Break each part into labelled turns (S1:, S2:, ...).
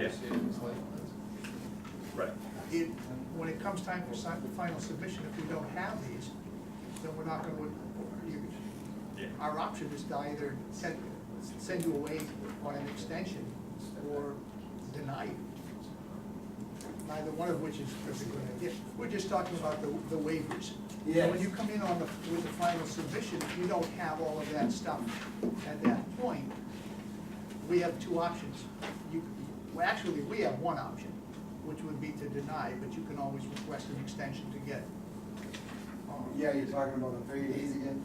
S1: negotiating with Slate.
S2: Right.
S3: It, when it comes time for si- final submission, if we don't have these, then we're not gonna, you-
S2: Yeah.
S3: our option is to either send, send you away on an extension or deny you. Neither one of which is a good idea. We're just talking about the, the waivers. Yeah. When you come in on the, with the final submission, if you don't have all of that stuff at that point, we have two options. You, well, actually, we have one option, which would be to deny, but you can always request an extension to get. um,
S4: Yeah, you're talking about the thirty days again?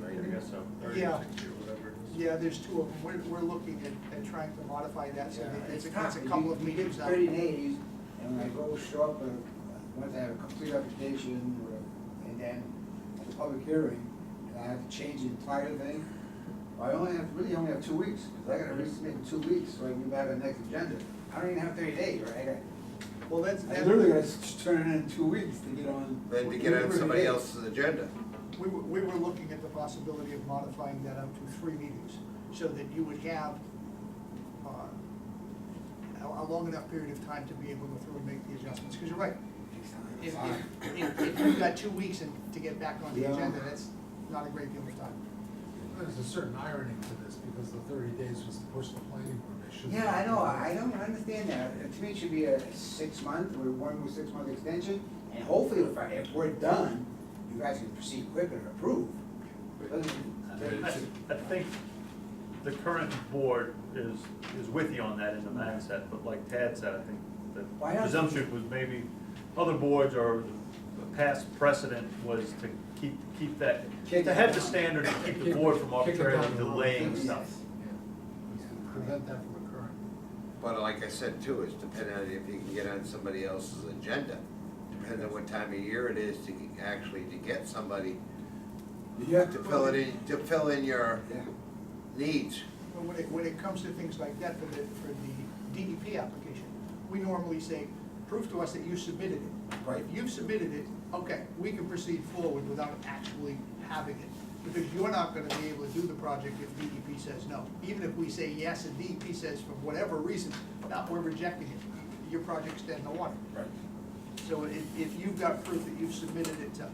S2: Right, I guess so, thirty,
S3: Yeah.
S2: sixty, or whatever. it is.
S3: Yeah, there's two of them. We're, we're looking at, at trying to modify that, so that it's, a- it's a
S4: tough.
S3: couple of
S4: You- you
S3: meetings
S4: give
S3: now.
S4: Thirty days, and when I go short, but once I have a complete application, or- and then a public hearing, and I have to change the entire thing, I only have, really only have two weeks, because I gotta resubmit in two weeks, so I can be back on the next agenda. I don't even have thirty days, right? I got-
S3: Well, that's,
S4: I
S3: that,
S4: literally gotta s- turn it in two weeks to get on.
S5: Then to get on
S4: whatever
S5: somebody
S4: it is.
S5: else's agenda.
S3: we were, we were looking at the possibility of modifying that up to three meetings, so that you would have, uh, a, a long enough period of time to be able to go through and make the adjustments, because you're right. If, if, if- if you've got two weeks and- to get back on the
S4: Yeah.
S3: agenda, that's not a great deal of time.
S1: There's a certain irony to this, because the thirty days was to push the planning board, they should.
S4: Yeah, I know, I don't understand that, Uh, to me, it should be a six-month, or one more six-month extension, and hopefully, if, I- if we're done, you guys can proceed quicker and approve.
S2: I I think the current board is, is with you on that in the mindset, but like Tad said, I think
S4: Why
S2: the
S4: not?
S2: presumption was maybe other boards or the past precedent was to keep, keep that,
S4: Kick
S2: to
S4: it
S2: have the
S4: down.
S2: standard to keep the
S1: Kick it-
S2: board from
S1: kick it down
S2: arbitrarily
S1: the road.
S2: delaying
S4: Yes.
S2: stuff.
S1: Yeah. It's to Prevent that from occurring.
S5: But like I said too, it's dependent on if you can get on somebody else's agenda. Depends on what time of year it is to get- actually to get somebody
S4: You have
S5: to fill it in, to fill in your
S4: Yeah,
S5: needs.
S3: But when it, when it comes to things like that for the, for the DEP application, we normally say, prove to us that you submitted it.
S4: Right.
S3: If you've submitted it, okay, we can proceed forward without actually having it, because you're not gonna be able to do the project if DEP says no. Even if we say yes and DEP says for whatever reason, no, we're rejecting it, your project's dead in the water.
S2: Right.
S3: So if, if you've got proof that you've submitted it to,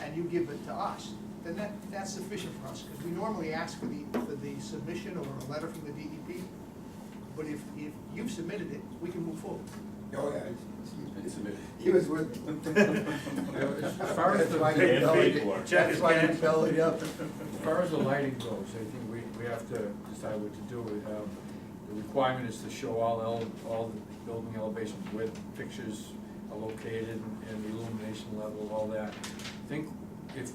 S3: and you give it to us, then that, that's sufficient for us, because we normally ask for the, for the submission or a letter from the DEP. But if, if you've submitted it, we can move forward.
S4: oh, yeah, it's- he was with me.
S6: As far as
S5: That's why
S6: the,
S5: you
S2: Paid
S5: bellied,
S2: for it.
S5: it- that's why you
S2: Check is
S5: bellied up.
S6: as far as the lighting goes, I think we, we have to decide what to do. Um, The requirement is to show all, ele- all the building elevations, where the fixtures are located and the illumination level, all that. I think if,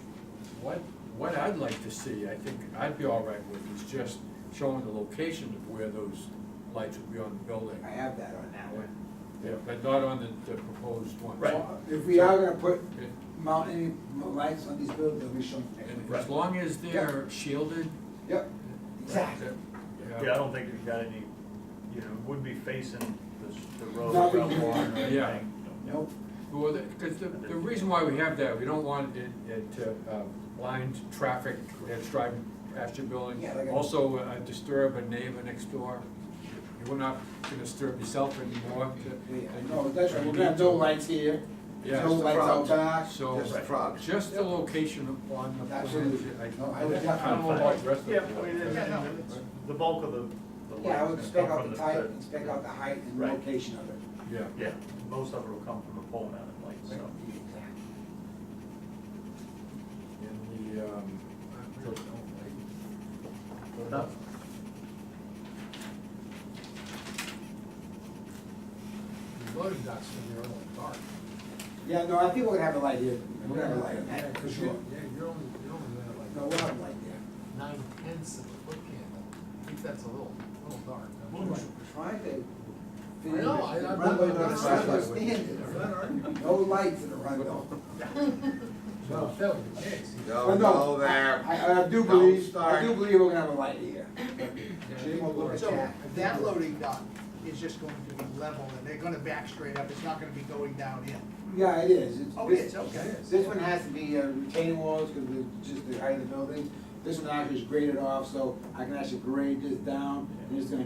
S6: what, what I'd like to see, I think I'd be all right with, is just showing the location of where those lights would be on the building.
S4: I have that on that one.
S6: Yeah, but not on the, the proposed one.
S2: Right.
S4: If we are gonna put
S6: It-
S4: mountain lights on these buildings, they'll be shown.
S6: And as long as they're shielded,
S4: Yep, exactly.
S2: Yeah, I don't think we've got any, you know, would be facing the, s- the road
S4: Not
S2: without
S4: really.
S2: water or
S6: Yeah.
S2: anything.
S4: Nope.
S6: Well, because the, the reason why we have that, we don't want it, it to uh, blind traffic that's driving past your building.
S4: Yeah, like a-
S6: Also uh, disturb a neighbor next door. You're not gonna disturb yourself anymore.
S4: Yeah, no, that's right, we're gonna have no lights here,
S6: Yeah.
S4: no lights out back.
S6: So,
S5: Just the frogs.
S6: just the location on the plan.
S4: Absolutely.
S6: I
S4: No, I
S6: I
S4: would
S6: don't know about the rest of
S2: Yeah,
S6: it.
S2: I mean, and-
S3: Yeah, no,
S2: and
S3: it's-
S2: the bulk of the, the lights.
S4: Yeah, I would
S2: gonna
S4: spec
S2: come
S4: out
S2: from
S4: the type, and
S2: the-
S4: spec out the height and
S2: Right.
S4: location of it.
S6: Yeah.
S2: Yeah, most of it will come from the pole mounted lights, so.
S6: And the, um,
S1: I really don't
S2: No.
S1: like, the loading docks when they're all dark.
S4: Yeah, no, I think we're gonna have a light here, we're gonna have a light, on
S1: Yeah,
S4: that, for
S1: 'cause
S4: sure.
S1: you- Yeah, you're only, you're only gonna
S4: No, we'll
S1: have like
S4: have a light there.
S1: nine tenths of a foot candle, I think that's a little, little dark. I'm
S4: We're
S1: sure.
S4: Trying to.
S1: I know, I- I-
S4: Runway
S1: I'm
S4: doesn't
S1: not-
S4: understand
S1: Is that
S4: it.
S1: all right?
S4: No lights in the runway.
S1: Well, if that were the case, you-
S4: But
S5: Don't
S4: no,
S5: go there.
S4: I, I do
S5: Oh, Don't
S4: believe, I
S5: start.
S4: do believe we're gonna have a light here. Jim will look at
S3: So
S4: that.
S3: that loading dock is just going to be level, and they're gonna back straight up, it's not gonna be going down in.
S4: Yeah, it is. It's-
S3: Oh,
S4: this-
S3: it's okay.
S4: This one has to be uh, retaining walls because it's just the height of the building. This one actually is graded off, so I can actually grade this down and it's gonna